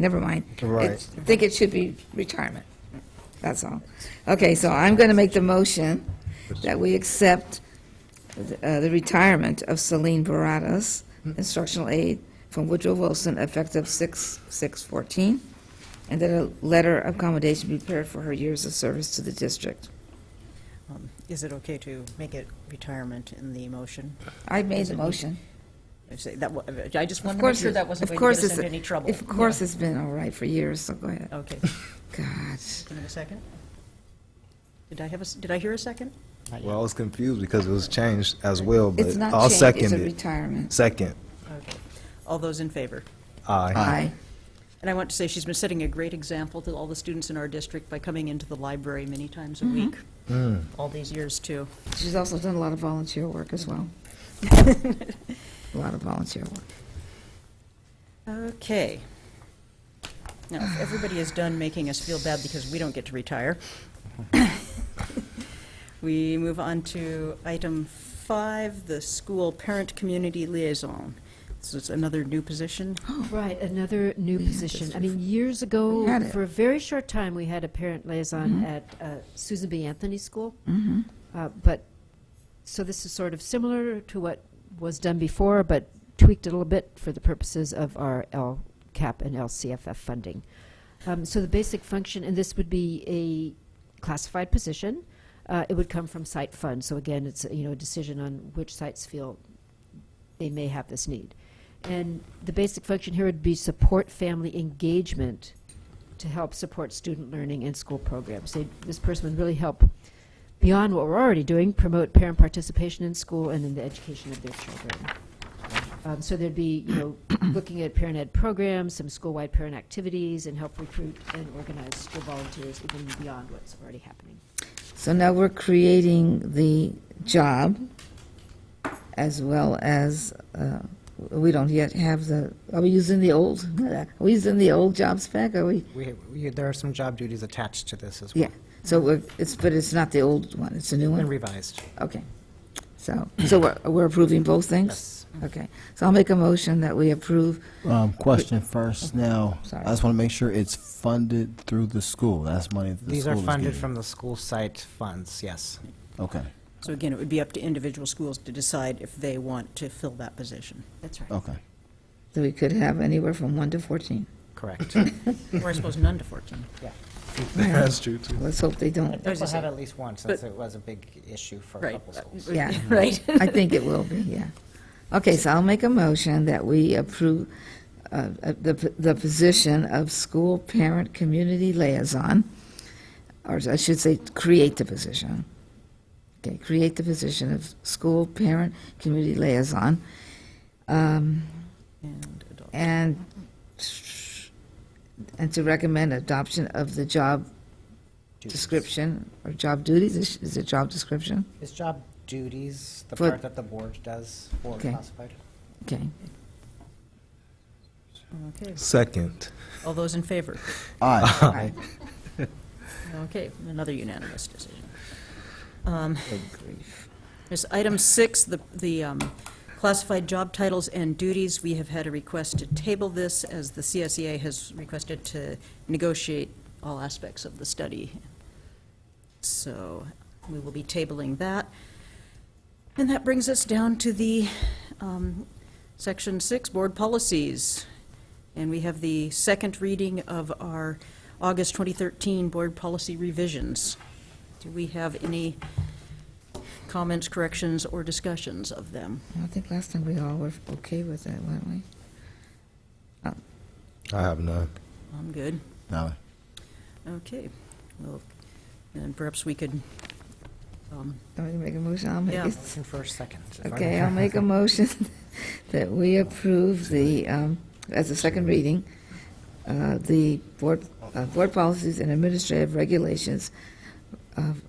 never mind. Right. It's- I think it should be retirement, that's all. Okay, so I'm going to make the motion that we accept the- uh, the retirement of Celine Baradas, instructional aide from Woodrow Wilson, effective 6/6/14, and that a letter of commendation be prepared for her years of service to the district. Um, Is it okay to make it retirement in the motion? I made the motion. I say that wa- I just Of wanted to make course, sure it- that wasn't of going course to get us it's- into any trouble. Of course, it's been all right for years, so go ahead. Okay, God, give me a second. Did I have a, s- did I hear a second? Well, I was confused because it was changed as well, but it's not I'll change, it's second a it. retirement. Second, Okay. All those in favor? aye. Aye. And I want to say she's been setting a great example to all the students in our district by coming into the library many times a Mm-hmm. week, all these years, too. She's also done a lot of volunteer work as well. A lot of volunteer work. Okay. Now, if everybody is done making us feel bad because we don't get to retire, we move on to item five, the school parent community liaison. This is another new position. Oh. Right, another new position. I mean, years We ago, had it. Mm-hmm. for a very short time, we had a parent liaison at uh, Susan B. Anthony School. Uh, But, so this is sort of similar to what was done before, but tweaked a little bit for the purposes of our LCAP and LCFF funding. Um, So the basic function, and this would be a classified position, uh, it would come from site funds. So again, it's, you know, a decision on which sites feel they may have this need. And the basic function here would be support family engagement to help support student learning and school programs. They, this person would really help, beyond what we're already doing, promote parent participation in school and in the education of their children. Um, so there'd be, you know, looking at parent ed programs, some school-wide parent activities, and help recruit and organize school volunteers even beyond what's already happening. So now we're creating the job as well as, uh, we don't yet have the, are we using the old, are we using the old job spec? Are we, We, we, there are some job duties attached to this as well. yeah. So we're- it's, but it's not the old one, it's a new And one? revised. Okay. So, so we're we're approving both things? Okay. So I'll make a motion that we approve, Um, question first now. Sorry. I just want to make sure it's funded through the school. That's money that the These school are is funded getting. from the school site funds, yes. Okay, So again, it would be up to individual schools to decide if they want to fill that position. That's right. okay. that we could have anywhere from 1 to 14. Correct. Or I suppose none to 14. That's true, too. Let's hope they don't, I was People just had saying- at least one, since it was a big issue for a Right. couple schools. yeah. Right. I think it will be, yeah. Okay, so I'll make a motion that we approve uh, uh, the p- the position of school parent community liaison, or I should say, create the position. Okay, create the position of school parent community liaison, um, And adult. and, and to recommend adoption of the job Duties. description, or job duties, is is it job description? Is job duties the For- part that the board does for Okay. classified? Okay. Okay. Second. All those in favor? Aye. Aye. Okay, another unanimous decision. Um, There's item six, the, the um, classified job titles and duties. We have had a request to table this as the CSEA has requested to negotiate all aspects of the study. So we will be tabling that. And that brings us down to the um, section six, board policies. And we have the second reading of our August 2013 board policy revisions. Do we have any comments, corrections, or discussions of them? I think last time we all were okay with that, weren't we? I have none. I'm good. No. Okay. Well, then perhaps we could, um, I'm going to make a motion. I'll make, Yeah. a- Motion for a second. okay, I'll make a motion that we approve the, um, as a second reading, uh, the board, uh, board policies and administrative regulations of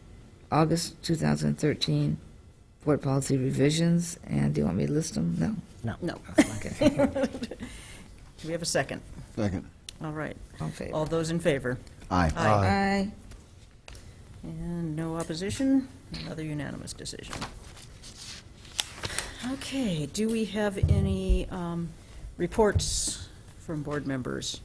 August 2013, board policy revisions, and do you want me to list them? No. no. Okay, Do we have a second? Second. All right. all in favor? All those in favor? Aye. Aye. Aye. And no opposition, another unanimous decision. Okay, do we have any um, reports from board members?